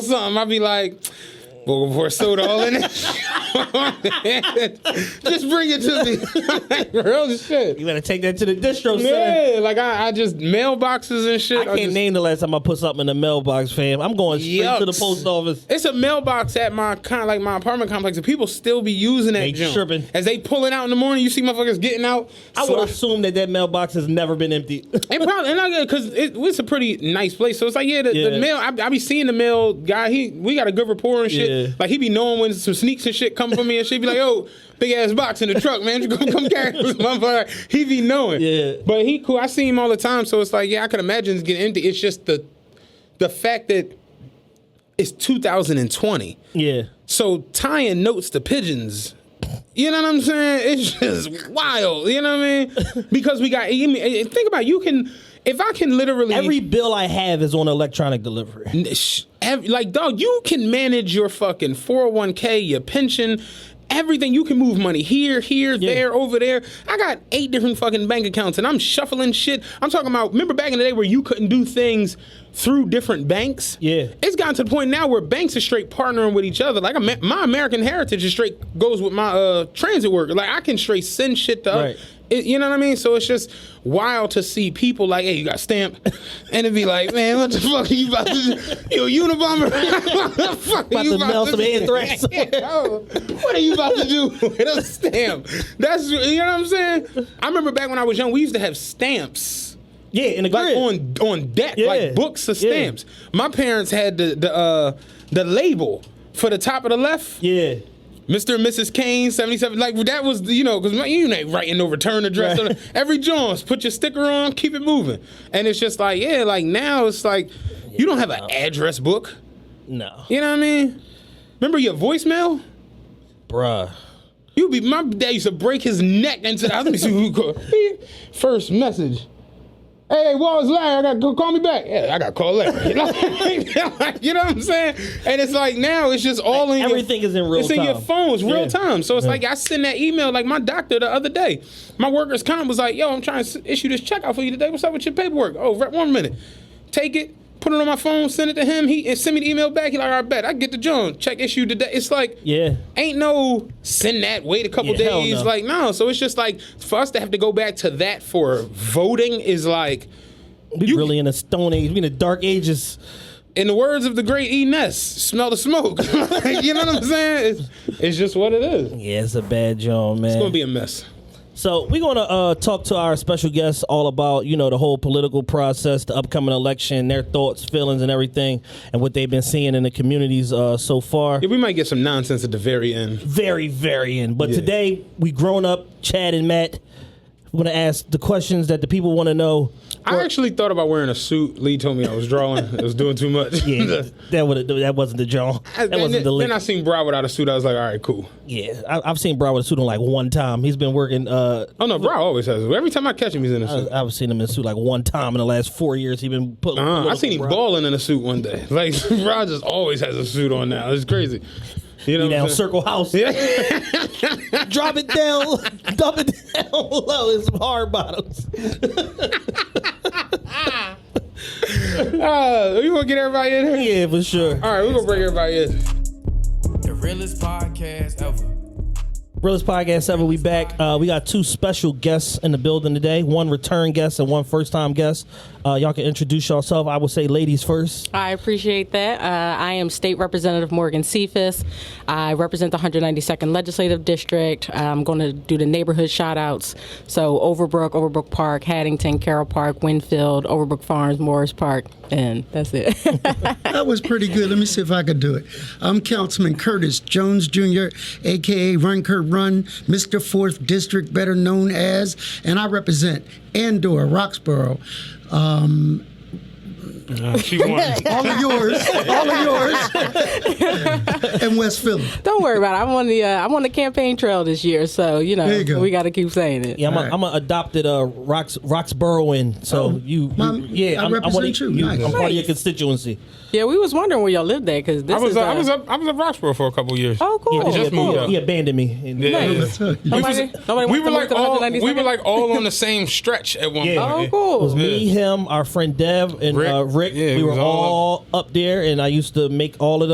something, I'd be like, well, pour soda all in it. just bring it to me. like, real shit. You better take that to the distro, son. Yeah, like I, I just mailboxes and shit. I can't just- name the last time I put something in the mailbox, fam. I'm going straight to the Yucks. post office. It's a mailbox at my kind of like my apartment complex, and people still be using that They junk. tripping. As they pulling out in the morning, you see motherfuckers getting out. I So- would assume that that mailbox has never been empty. And probably and I because it, it's a pretty nice place, so it's like yeah, the, Yeah. the mail. I, I be seeing the mail guy. He we got a good rapport and shit. Yeah. Like he be knowing when some sneaks and shit come for me and shit. Be like, oh, big ass box in the truck, man. You come, come carry this motherfucker. He be knowing. Yeah. But he cool. I see him all the time, so it's like yeah, I could imagine it's getting empty. It's just the the fact that it's 2020, yeah. so tying notes to pigeons. You know what I'm saying? It's just wild. You know what I mean? Because we got. I mean, eh, think about it, you can. If I can literally Every bill I have is on electronic delivery. Sh- ev- like dog you can manage your fucking 401k your pension everything you can move money here here there over there i got eight different fucking bank accounts and i'm shuffling shit i'm talking about remember back in the day where you couldn't do things through different banks Yeah. it's gotten to the point now where banks are straight partnering with each other like Ama- my american heritage is straight goes with my uh transit worker like i can straight send shit to Right. Oh, it, you know what I mean? So it's just wild to see people like, hey, you got stamped. And it'd be like, man, what the fuck are you about to do? Yo, Unabomber. what the fuck About to mail some do? anthrax. Yo, what are you about to do with a stamp? That's, you know what I'm saying? I remember back when I was young, we used to have stamps. Yeah, in the Like grid. on on deck, Yeah. like books of Yeah. stamps. My parents had the the uh, the label for the top of the left. yeah. Mr. and Mrs. Kane, 77. Like, that was, you know, because you ain't writing no return address. Right. Every Jones, put your sticker on, keep it moving. And it's just like, yeah, like now it's like, you don't have an address book. No. You know what I mean? Remember your voicemail? Bruh. You be, my dad used to break his neck into the, let me see who called. First message. Hey, Wallace Larry, I got to call me back. Yeah, I got to call Larry. Like, you know what I'm saying? And it's like now it's just all in your- Everything is in real it's time. in your phones, real Yeah. time. So it's like I send that email, like my doctor the other day. My workers' comp was like, "Yo, I'm trying to s- issue this check out for you today. What's up with your paperwork? Oh, rep one minute. Take it, put it on my phone, send it to him. He and send me the email back. He like, I bet I get the John check issued today. It's like, Yeah. ain't no send that. Wait a couple Yeah, hell days. no. Like no. So it's just like for us to have to go back to that for voting is like. We You- really in a stone age. We in the dark ages. In the words of the great E. Ness, smell the smoke. you know what I'm saying? It's, it's just what it is. It's Yeah, it's a bad job, man. gonna be a mess. So we're gonna uh, talk to our special guests all about you know the whole political process, the upcoming election, their thoughts, feelings, and everything, and what they've been seeing in the communities uh, so far. Yeah, we might get some nonsense at the very end. Very, very in. But Yeah. today we grown up, Chad and Matt. We're gonna ask the questions that the people want to know. I actually thought about wearing a suit. Lee told me I was drawing. I was doing too much. Yeah, that would that wasn't the John. I- That wasn't then, the then I link. seen Bra without a suit. I was like, all right, cool. Yeah, I, I've seen Broward with a suit on like one time. He's been working. Uh, Oh no, Bra always has it. Every time I catch him, he's in a I- suit. I've seen him in a suit like one time in the last four years. He's been put. Uh, I political seen him Broward. balling in a suit one day. Like Bra just always has a suit on now. It's crazy. You know, what Be I'm down saying? Circle House. Drop it down, dump it down low. It's hard bottoms. Uh, you gonna get everybody in here? Yeah, for sure. All right, we're gonna bring everybody in. The realest podcast ever. Realist Podcast 7, we back. Uh, we got two special guests in the building today one return guest and one first time guest. Uh, y'all can introduce yourself. I will say ladies first. I appreciate that. Uh, I am State Representative Morgan Cephas. I represent the 192nd Legislative District. I'm going to do the neighborhood shout outs. So, Overbrook, Overbrook Park, Haddington, Carroll Park, Winfield, Overbrook Farms, Morris Park, and that's it. That was pretty good. Let me see if I could do it. I'm Councilman Curtis Jones Jr., aka Run Kurt Run, Mr. Fourth District, better known as, and I represent Andor, Roxborough. Um, she won. all of yours, all of yours. and in West Philly. Don't worry about it. I'm on the uh, I'm on the campaign trail this year, so you know There you go. we got to keep saying it. Yeah, I'm, Alright. a, I'm a adopted uh, Rox, Roxboroughan, so you, you- Mom, yeah, I I'm, I'm, one of represent you. you- Nice. I'm part of Nice. your constituency. Yeah, we was wondering where y'all lived at because this I was is. uh, uh, I was up I was up Roxborough for a couple years. Oh, cool. He just yeah, moved he- up. he abandoned me. And- Yeah. Nice. That's it. We was- Nobody- we nobody wants to were move like to all 192nd? we were like all on the same stretch at one Yeah. Oh, point. It was cool. me, Yeah. him, our friend Dev, and Rick. Uh, Rick. Yeah, we it were was all all up. there, and I used to make all of